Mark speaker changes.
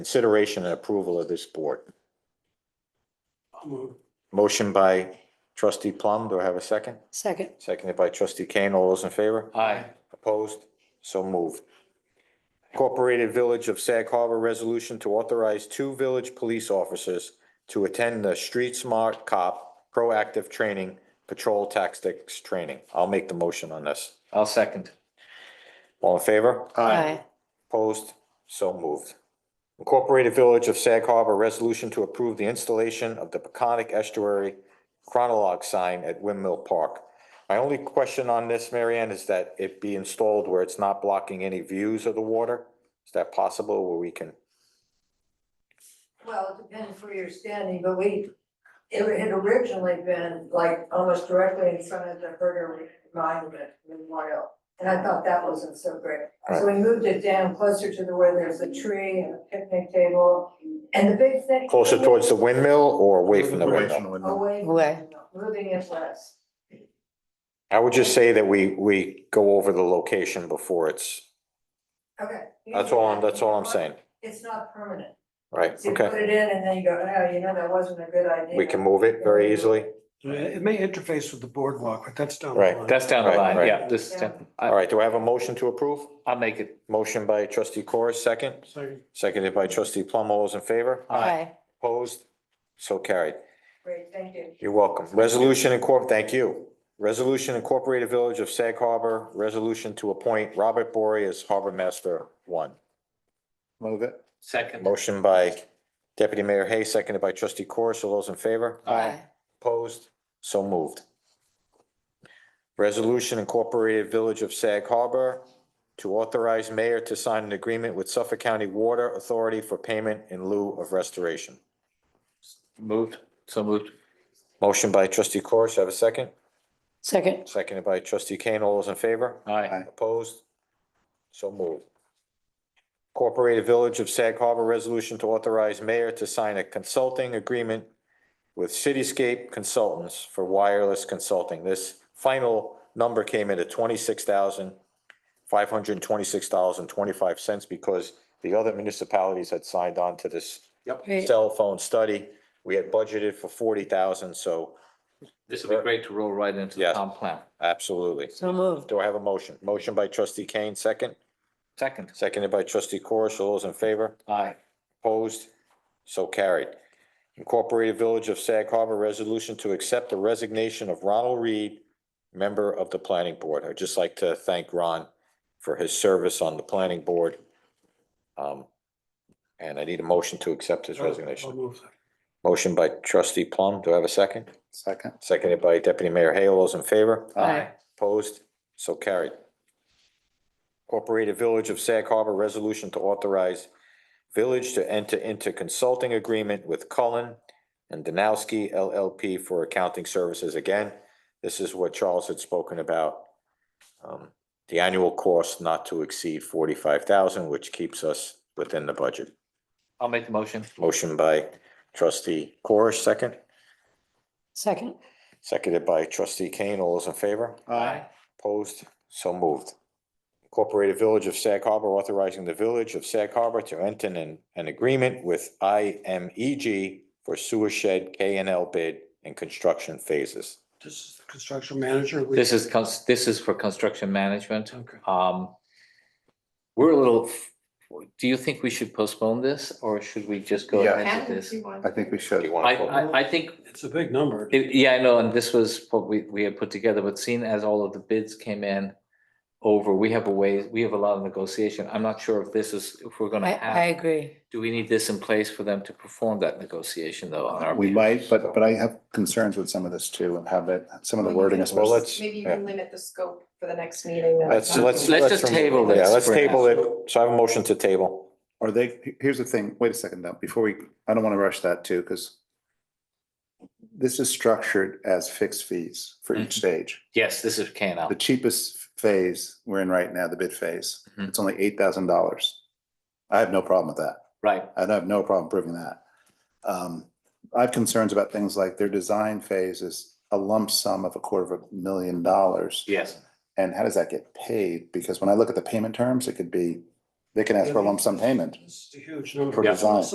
Speaker 1: Consideration and approval of this board.
Speaker 2: I'll move.
Speaker 1: Motion by trustee Plum. Do I have a second?
Speaker 3: Second,
Speaker 1: Seconded by trustee Kane. All those in favor?
Speaker 2: Aye.
Speaker 1: Opposed? So moved. Incorporated Village of Sag Harbor Resolution to authorize two village police officers to attend the Street Smart Cop Proactive Training Patrol Tactics Training. I'll make the motion on this.
Speaker 2: I'll second.
Speaker 1: All in favor?
Speaker 3: aye,
Speaker 1: Opposed? So moved. Incorporated Village of Sag Harbor Resolution to approve the installation of the Peconic Estuary Chronologue sign at Windmill Park. My only question on this, Marianne, is that it be installed where it's not blocking any views of the water? Is that possible where we can?
Speaker 4: Well, it depends where you're standing, but we, it had originally been like almost directly in front of the Herder Monument Memorial. And I thought that wasn't so great. So we moved it down closer to the where there's a tree and a picnic table. And the big thing.
Speaker 1: Closer towards the windmill or away from the windmill?
Speaker 4: Away, from
Speaker 3: Away.
Speaker 4: the- moving it west.
Speaker 1: I would just say that we, we go over the location before it's,
Speaker 4: Okay.
Speaker 1: that's all, I'm- that's all I'm saying,
Speaker 4: It's not permanent.
Speaker 1: right?
Speaker 4: So you put
Speaker 1: Okay,
Speaker 4: it in and then you go, oh, you know, that wasn't a good idea.
Speaker 1: we can move it very easily.
Speaker 2: It may interface with the boardwalk, but that's down.
Speaker 1: the Right. line.
Speaker 5: That's down the
Speaker 1: Right,
Speaker 5: line,
Speaker 1: right.
Speaker 5: yeah, this is, down-
Speaker 1: All
Speaker 5: I,
Speaker 1: right, do I have a motion to approve?
Speaker 5: I'll make it,
Speaker 1: Motion by trustee Corr, second,
Speaker 2: Second.
Speaker 1: seconded by trustee Plum. All those in favor?
Speaker 3: aye,
Speaker 1: Opposed? So carried.
Speaker 4: Great, thank you.
Speaker 1: You're welcome. Resolution incorp, thank you. Resolution Incorporated Village of Sag Harbor, resolution to appoint Robert Bory as Harbor Master One.
Speaker 6: Move it.
Speaker 5: second.
Speaker 1: Motion by deputy mayor Hay, seconded by trustee Corr. So those in favor?
Speaker 3: aye,
Speaker 1: Opposed? So moved. Resolution Incorporated Village of Sag Harbor to authorize mayor to sign an agreement with Suffolk County Water Authority for payment in lieu of restoration.
Speaker 5: Moved, so moved.
Speaker 1: Motion by trustee Corish, have a second?
Speaker 3: second,
Speaker 1: Seconded by trustee Kane. All those in favor?
Speaker 5: Aye,
Speaker 1: Opposed? So moved. Incorporated Village of Sag Harbor Resolution to authorize mayor to sign a consulting agreement with Cityscape Consultants for wireless consulting. This final number came in at twenty-six thousand five hundred and twenty-six dollars and twenty-five cents because the other municipalities had signed on to this
Speaker 3: great,
Speaker 1: cell phone study. We had budgeted for forty thousand, so
Speaker 5: this would be great to roll right into the
Speaker 1: Yes.
Speaker 5: comp plan.
Speaker 1: absolutely.
Speaker 3: so moved,
Speaker 1: Do I have a motion? Motion by trustee Kane, second?
Speaker 5: Second,
Speaker 1: Seconded by trustee Corish. All those in favor?
Speaker 5: aye,
Speaker 1: Opposed? So carried. Incorporated Village of Sag Harbor Resolution to accept the resignation of Ronald Reed, member of the planning board. I'd just like to thank Ron for his service on the planning board. Um, and I need a motion to accept his
Speaker 2: I'll
Speaker 1: resignation.
Speaker 2: move that.
Speaker 1: Motion by trustee Plum. Do I have a second?
Speaker 6: Second.
Speaker 1: Seconded by deputy mayor Hale. All those in favor?
Speaker 3: aye,
Speaker 1: Opposed? So carried. Incorporated Village of Sag Harbor Resolution to authorize village to enter into consulting agreement with Cullen and Danowski LLP for accounting services. Again, this is what Charles had spoken about. um, The annual cost not to exceed forty-five thousand, which keeps us within the budget.
Speaker 5: I'll make the motion.
Speaker 1: Motion by trustee Corish, second,
Speaker 3: second,
Speaker 1: seconded by trustee Kane. All those in favor?
Speaker 5: Aye,
Speaker 1: Opposed? So moved. Incorporated Village of Sag Harbor authorizing the Village of Sag Harbor to enter an, an agreement with I M E G for sewer shed K and L bid and construction phases.
Speaker 2: This is the construction manager. We-
Speaker 5: this is, cons- this is for construction management.
Speaker 2: Okay.
Speaker 5: Um, we're a little, do you think we should postpone this or should we just go
Speaker 6: Yeah.
Speaker 5: ahead with this?
Speaker 6: I think we
Speaker 1: Do
Speaker 6: should.
Speaker 1: you
Speaker 5: I,
Speaker 1: want to?
Speaker 5: I, I think
Speaker 2: It's a big number.
Speaker 5: It- Yeah, I know, and this was what we, we had put together, but seeing as all of the bids came in over, we have a way, we have a lot of negotiation. I'm not sure if this is, if we're
Speaker 3: I,
Speaker 5: gonna
Speaker 3: I
Speaker 5: have,
Speaker 3: agree,
Speaker 5: do we need this in place for them to perform that negotiation though on our?
Speaker 6: We
Speaker 5: behalf?
Speaker 6: might, but, but I have concerns with some of this too and have it, some of the wording
Speaker 1: Mm-hmm. Well,
Speaker 6: especially.
Speaker 1: let's,
Speaker 7: Maybe you
Speaker 1: yeah,
Speaker 7: can limit the scope for the next meeting. then.
Speaker 1: let's, let's.
Speaker 5: Let's just
Speaker 1: remove-
Speaker 5: table
Speaker 1: Yeah,
Speaker 5: this
Speaker 1: let's
Speaker 5: for now.
Speaker 1: table it. So I have a motion to table.
Speaker 6: Are they, here's the thing, wait a second though, before we, I don't want to rush that too, because this is structured as fixed fees for
Speaker 1: Mm-hmm.
Speaker 6: each stage.
Speaker 5: Yes, this is K and L.
Speaker 6: The cheapest phase we're in right now, the bid phase,
Speaker 1: Mm-hmm.
Speaker 5: Mhm.
Speaker 6: it's only eight thousand dollars. I have no problem with that.
Speaker 5: right,
Speaker 6: I'd have no problem proving that. Um, I have concerns about things like their design phase is a lump sum of a quarter of a million dollars.
Speaker 5: yes,
Speaker 6: And how does that get paid? Because when I look at the payment terms, it could be
Speaker 2: They can ask for a lump sum payment.
Speaker 6: This is a huge number.
Speaker 2: For design.